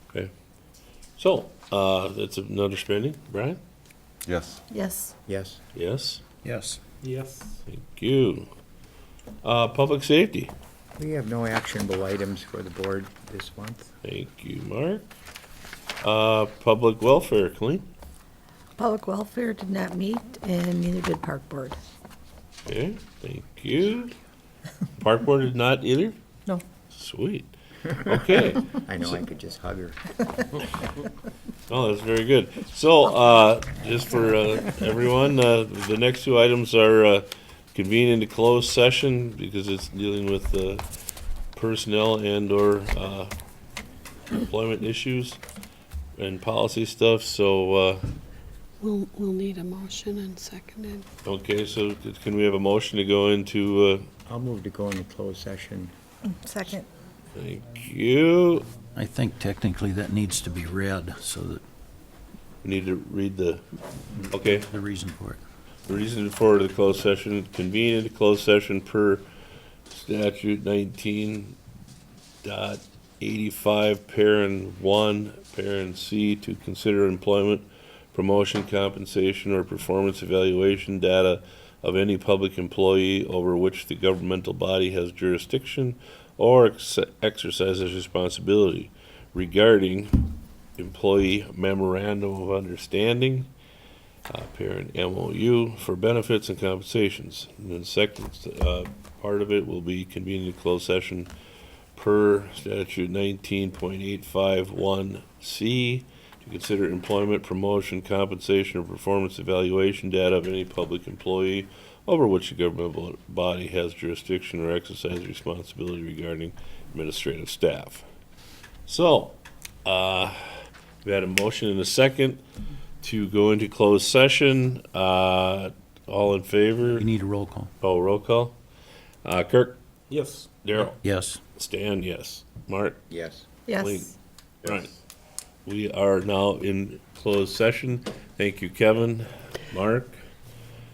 Okay. So, uh, that's an understanding, Brian? Yes. Yes. Yes. Yes? Yes. Yes. Thank you. Uh, public safety? We have no actionable items for the board this month. Thank you, Mark. Uh, public welfare, Colleen? Public Welfare did not meet, and neither did Park Board. Okay, thank you. Park board did not either? No. Sweet. Okay. I know I could just hug her. Oh, that's very good. So, uh, just for, uh, everyone, uh, the next two items are, uh, convene into closed session because it's dealing with, uh, personnel and or, uh, employment issues and policy stuff, so, uh, We'll, we'll need a motion and seconded. okay, so can we have a motion to go into, uh, I'll move to go into closed session. Second. thank you. I think technically that needs to be read, so that We need to read the, okay, the reason for it. The Reason for the closed session, convene into closed session per statute nineteen dot eighty-five, parent one, parent C, to consider employment, promotion, compensation, or performance evaluation data of any public employee over which the governmental body has jurisdiction or ex- exercises responsibility regarding employee memorandum of understanding, uh, parent MOU for benefits and compensations. And then second, uh, part of it will be convening a closed session per statute nineteen point eight five one C to consider employment, promotion, compensation, or performance evaluation data of any public employee over which the governmental body has jurisdiction or exercise responsibility regarding administrative staff. So, uh, we had a motion and a second to go into closed session. Uh, all in favor? You need a roll call. Oh, roll call. Uh, Kirk, Yes. Daryl, Yes. Stan, yes. Mark, Yes. Wait. Yes. Right. We are now in closed session. Thank you, Kevin, Mark.